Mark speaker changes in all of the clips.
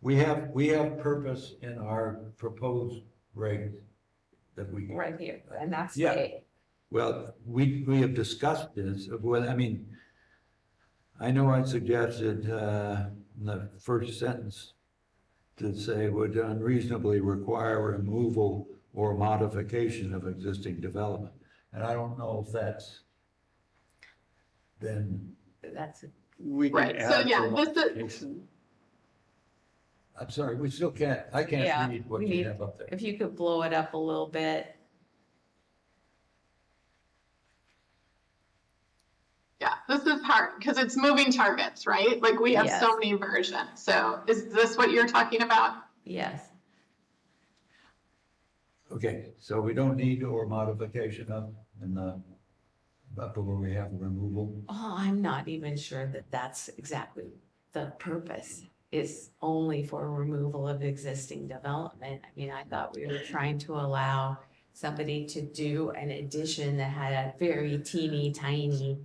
Speaker 1: We have, we have purpose in our proposed regs that we,
Speaker 2: right here, and that's
Speaker 1: Yeah.
Speaker 2: the,
Speaker 1: well, we, we have discussed this, well, I mean, I know I suggested, uh, in the first sentence to say would unreasonably require removal or modification of existing development. And I don't know if that's then,
Speaker 2: that's,
Speaker 3: We can
Speaker 4: Right, so
Speaker 3: add
Speaker 4: yeah,
Speaker 3: for
Speaker 4: this is,
Speaker 3: modification.
Speaker 1: I'm sorry, we still can't, I
Speaker 2: Yeah,
Speaker 1: can't read what
Speaker 2: we
Speaker 1: you
Speaker 2: need-
Speaker 1: have up there.
Speaker 2: if you could blow it up a little bit.
Speaker 4: yeah, this is hard, because it's moving targets, right? Like, we have so
Speaker 2: Yes.
Speaker 4: many versions, so is this what you're talking about?
Speaker 2: Yes,
Speaker 1: Okay, so we don't need or modification of in the, but where we have removal.
Speaker 2: oh, I'm not even sure that that's exactly the purpose, is only for removal of existing development. I mean, I thought we were trying to allow somebody to do an addition that had a very teeny tiny,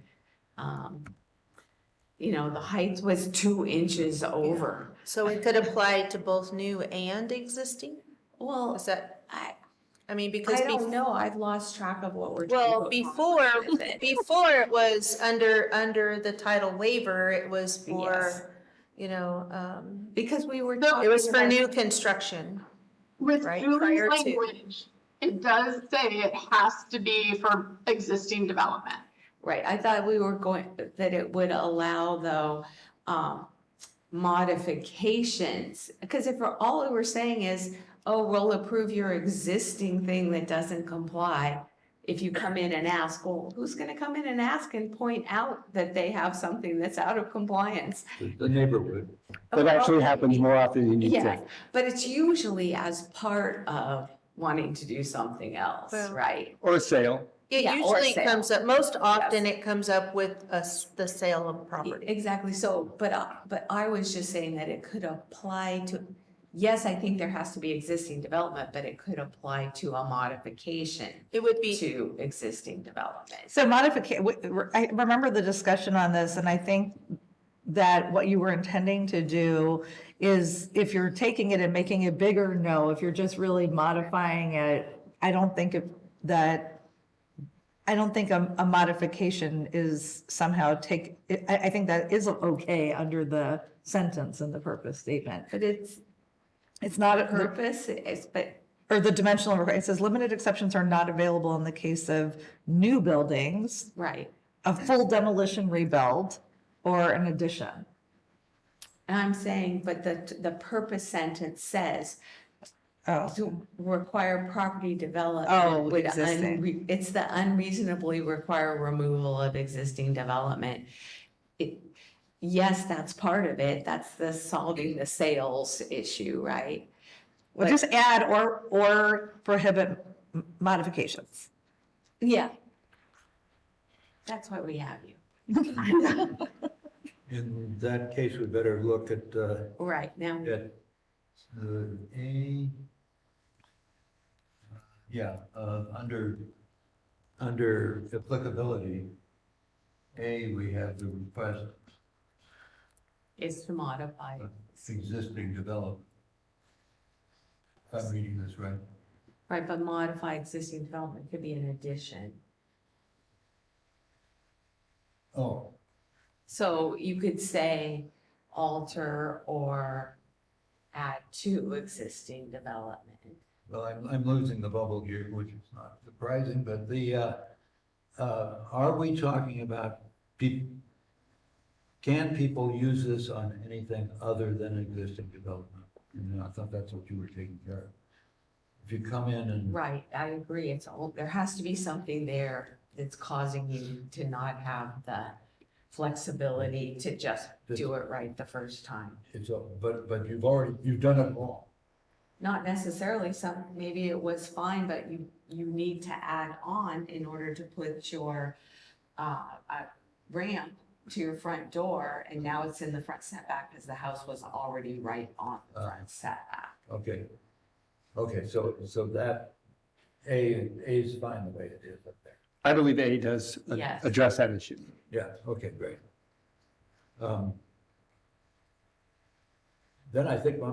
Speaker 2: um, you know, the height was two inches over.
Speaker 5: So it could apply to both new and existing?
Speaker 2: Well,
Speaker 5: Is that,
Speaker 2: I,
Speaker 5: I mean, because.
Speaker 2: I
Speaker 5: bef-
Speaker 2: don't know, I've lost track of what we're.
Speaker 5: Well,
Speaker 2: talking about.
Speaker 5: before, before it was under, under the title waiver, it was
Speaker 2: Yes.
Speaker 5: for, you know, um,
Speaker 2: Because we were.
Speaker 4: No, it
Speaker 5: it was
Speaker 2: talking
Speaker 5: for
Speaker 2: about-
Speaker 5: new construction.
Speaker 4: With
Speaker 5: right,
Speaker 4: Julie's
Speaker 5: prior to-
Speaker 4: language, it does say it has to be for existing development.
Speaker 2: Right, I thought we were going, that it would allow though, um, modifications. Because if we're, all we were saying is, oh, we'll approve your existing thing that doesn't comply. If you come in and ask, well, who's gonna come in and ask and point out that they have something that's out of compliance?
Speaker 1: The the neighborhood,
Speaker 3: That actually happens more often than you
Speaker 2: Yeah,
Speaker 3: think.
Speaker 2: but it's usually as part of wanting to do something else,
Speaker 5: Well-
Speaker 2: right?
Speaker 3: Or a sale.
Speaker 5: It
Speaker 2: Yeah, or
Speaker 5: usually
Speaker 2: sale.
Speaker 5: comes up, most often it comes up with us, the sale of property.
Speaker 2: E, Exactly, so, but, uh, but I was just saying that it could apply to, yes, I think there has to be existing development, but it could apply to a modification
Speaker 5: It would be.
Speaker 2: to existing development.
Speaker 6: So modification, I remember the discussion on this, and I think that what you were intending to do is if you're taking it and making it bigger, no, if you're just really modifying it, I don't think if- that, I don't think a, a modification is somehow take, I, I think that is okay under the sentence and the purpose statement.
Speaker 2: But it's
Speaker 6: It's not. a-
Speaker 2: purpose is, but
Speaker 6: or the dimensional, requirement. it says limited exceptions are not available in the case of new buildings,
Speaker 2: right,
Speaker 6: a full demolition rebuild, or an addition.
Speaker 2: and I'm saying, but the, the purpose sentence says
Speaker 6: Oh,
Speaker 2: to require property development.
Speaker 6: Oh,
Speaker 2: would un-
Speaker 6: existing.
Speaker 2: It's the unreasonably require removal of existing development. It, yes, that's part of it, that's the solving the sales issue, right?
Speaker 6: well, just add or, or prohibit m- modifications.
Speaker 2: Yeah. That's why we have you.
Speaker 1: in that case, we better look at, uh,
Speaker 2: Right, now,
Speaker 1: at the A. Yeah, uh, under, under applicability, A, we have the request
Speaker 2: is to modify.
Speaker 1: of existing development. If I'm reading this right.
Speaker 2: Right, but modify existing development could be an addition.
Speaker 1: Oh,
Speaker 2: So you could say alter or add to existing development.
Speaker 1: Well, I'm, I'm losing the bubble here, which is not surprising, but the, uh, uh, are we talking about peop can people use this on anything other than existing development? And I thought that's what you were taking care of. If you come in and,
Speaker 2: Right, I agree, it's all, there has to be something there that's causing you to not have the flexibility to just do it right the first time.
Speaker 1: it's, a- but, but you've already, you've done it wrong.
Speaker 2: Not necessarily some, maybe it was fine, but you, you need to add on in order to put your, uh, uh, ramp to your front door, and now it's in the front setback because the house was already right on the front setback.
Speaker 1: Okay. Okay, so, so that, A, A is fine the way it is up there.
Speaker 3: I believe A does uh,
Speaker 2: Yes.
Speaker 3: address that issue.
Speaker 1: Yeah, okay, great. Um, Then I think my